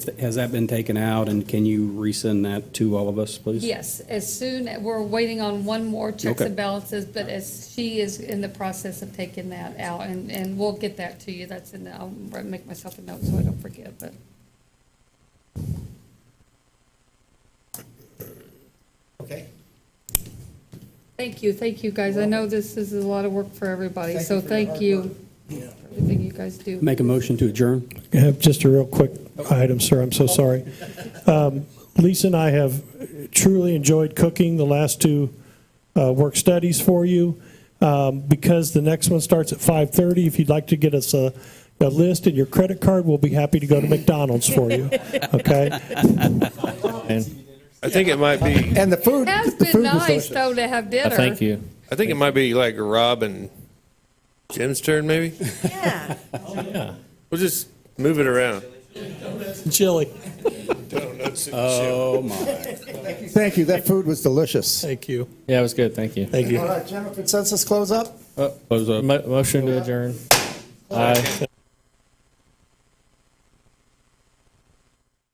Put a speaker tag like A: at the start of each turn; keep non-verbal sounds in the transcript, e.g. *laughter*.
A: Has that been taken out, and can you resend that to all of us, please?
B: Yes, as soon, we're waiting on one more checks
A: Okay.
B: and balances, but as she is in the process of taking that out, and, and we'll get that to you. That's in, the- I'll make myself a note so I don't forget, but.
C: Okay,
B: Thank you, thank you, guys. I know this is a lot of work for everybody,
C: Thank
B: so
C: you for your
B: thank
C: hard
B: you.
C: work.
B: for Everything you guys do.
A: Make a motion to adjourn?
D: I have Uh, just a real quick item, sir, I'm so sorry. Um, Lisa and I have truly enjoyed cooking the last two uh, work studies for you. Um, Because the next one starts at 5:30, if you'd like to get us a a list and your credit card, we'll be happy to go to McDonald's for you, okay?
E: I think it might be.
C: and the food,
B: It has
C: the
B: been
C: food was
B: nice,
C: delicious.
B: though, to have dinner.
F: Uh, Thank you.
E: I think it might be like Rob and Jim's turn. Maybe
G: Yeah.
E: *laughs* we'll just move it around.
D: Chili.
A: Oh, my.
C: Thank you, that food was delicious.
D: Thank you.
F: Yeah, it was good. Thank you.
D: Thank you.
C: All right, general consensus, close up?
F: Mo- Motion to adjourn. Aye.